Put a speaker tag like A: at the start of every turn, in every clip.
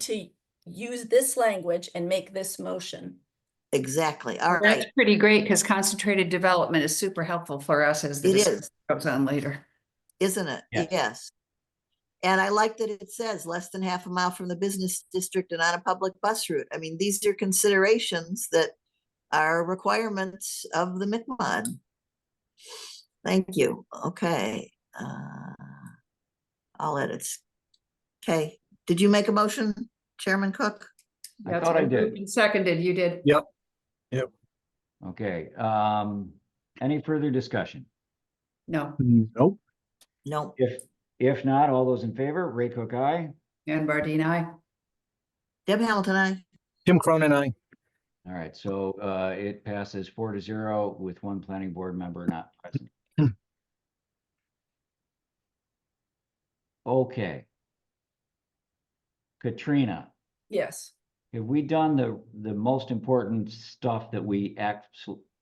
A: to use this language and make this motion.
B: Exactly, all right,
C: That's pretty great because concentrated development is super helpful for us as the
B: It
C: discussion
B: is.
C: goes on later.
B: isn't it?
D: Yeah.
B: Yes. And I like that it says less than half a mile from the business district and on a public bus route. I mean, these are considerations that are requirements of the MICMOD. Thank you. Okay. uh, All edits. Okay, did you make a motion, Chairman Cook?
D: I
C: That's
D: thought I
C: been
D: did.
C: moved and Seconded, you did.
D: Okay, um, any further discussion?
C: No,
E: Nope.
B: No,
D: If, if not, all those in favor, Ray Cook, aye.
C: and Bardine, I.
B: Deb Hamilton, I.
E: Tim Cronin, I.
D: All right, so, uh, it passes four to zero with one planning board member not present. Okay. Katrina,
A: Yes.
D: have we done the, the most important stuff that we act,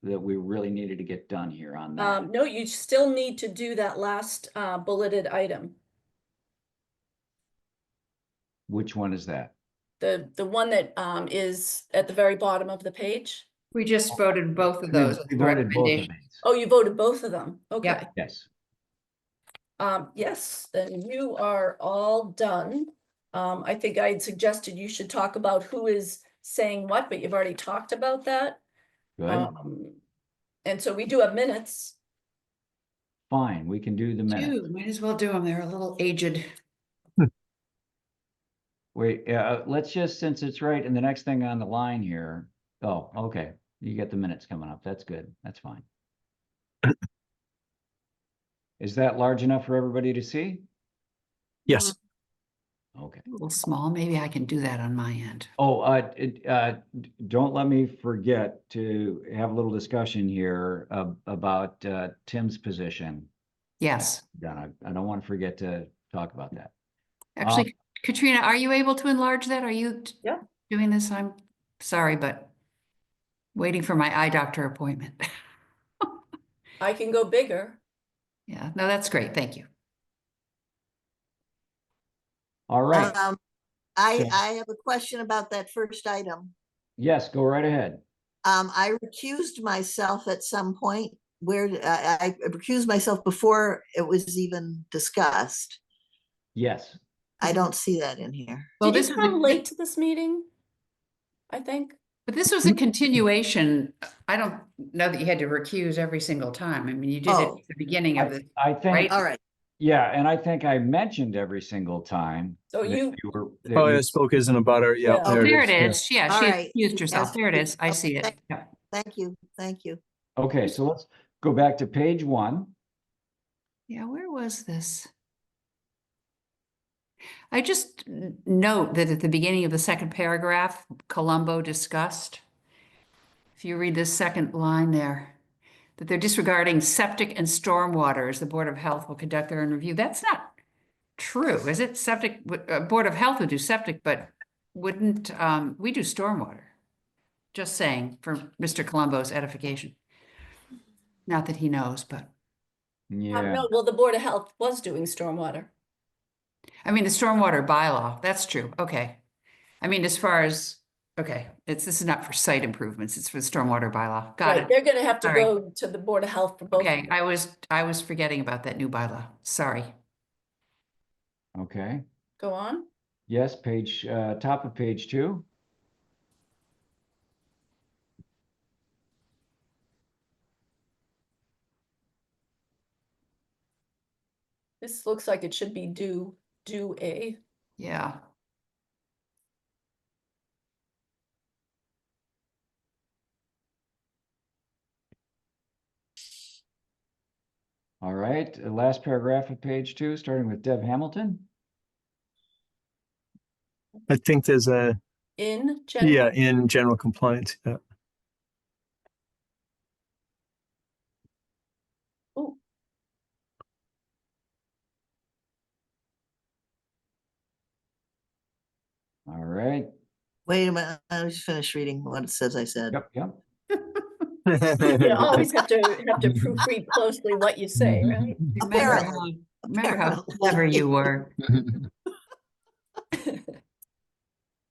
D: that we really needed to get done here on that?
A: Um, no, you still need to do that last uh, bulleted item,
D: Which one is that?
A: the, the one that um, is at the very bottom of the page.
C: We just voted both of those.
D: We voted both of
C: recommendation.
D: these.
A: Oh, you voted both of them. Okay.
D: Yes.
A: Um, yes, then you are all done. Um, I think I had suggested you should talk about who is saying what, but you've already talked about that.
D: Good,
A: Um, And so we do have minutes.
D: fine, we can do the minutes.
C: Dude, Might as well do them. They're a little aged.
D: Wait, uh, let's just, since it's right, and the next thing on the line here, oh, okay, you get the minutes coming up, that's good, that's fine. Is that large enough for everybody to see?
E: Yes.
D: Okay,
C: A little small, maybe I can do that on my end.
D: oh, uh, it, uh, d- don't let me forget to have a little discussion here ab- about, uh, Tim's position.
C: Yes,
D: Donna, I don't want to forget to talk about that. Um,
C: actually, Katrina, are you able to enlarge that? Are you t-
A: Yeah.
C: doing this? I'm sorry, but waiting for my eye doctor appointment.
A: I can go bigger.
C: Yeah, no, that's great. Thank you.
D: All right,
C: Uh,
B: Um, I,
D: Yeah.
B: I have a question about that first item.
D: yes, go right ahead.
B: Um, I recused myself at some point where d- I, I recused myself before it was even discussed.
D: Yes.
B: I don't see that in here.
C: Well,
A: Did
C: this
A: you
C: is a-
A: come late to this meeting? I think.
C: But this was a continuation. I don't know that you had to recuse every single time. I mean, you did it at
B: Oh.
C: the beginning of
D: I
C: the,
D: I think,
C: right?
B: All right,
D: yeah, and I think I mentioned every single time.
A: So
D: that
A: you-
D: were- that
E: Oh,
D: you-
E: yeah, spoke isn't about her. Yeah.
A: Yeah.
C: Mm-hmm. oh, there it is.
B: All
C: Yeah,
B: right.
C: she excused herself. There it is. I see it.
B: Okay.
C: Yeah.
B: thank you, thank you.
D: Okay, so let's go back to page one.
C: Yeah, where was this? I just n- note that at the beginning of the second paragraph, Colombo discussed. If you read this second line there, that they're disregarding septic and stormwater as the Board of Health will conduct their own review. That's not true, is it? Septic, w- uh, Board of Health would do septic, but wouldn't, um, we do stormwater. Just saying for Mr. Colombo's edification. Not that he knows, but.
A: Uh,
D: Yeah,
A: No, well, the Board of Health was doing stormwater.
C: I mean, the stormwater bylaw, that's true, okay. I mean, as far as, okay, it's, this is not for site improvements, it's for the stormwater bylaw,
A: Right,
C: got it.
A: They're gonna have to
C: Sorry.
A: go to the Board of Health for both.
C: Okay, I was, I was forgetting about that new bylaw, sorry.
D: okay.
A: Go on.
D: Yes, page, uh, top of page two.
A: This looks like it should be do, do a.
C: Yeah,
D: All right, uh, last paragraph of page two, starting with Deb Hamilton.
E: I think there's a,
A: In general.
E: yeah, in general compliance. Yeah.
D: All right,
B: Wait a minute, I was finished reading what it says I said.
D: yep, yep.
A: You always have to, have to proofread
D: Mm-hmm.
A: closely what you say, right?
C: remember
B: Apparently,
C: how, remember how
B: apparently.
C: clever you were.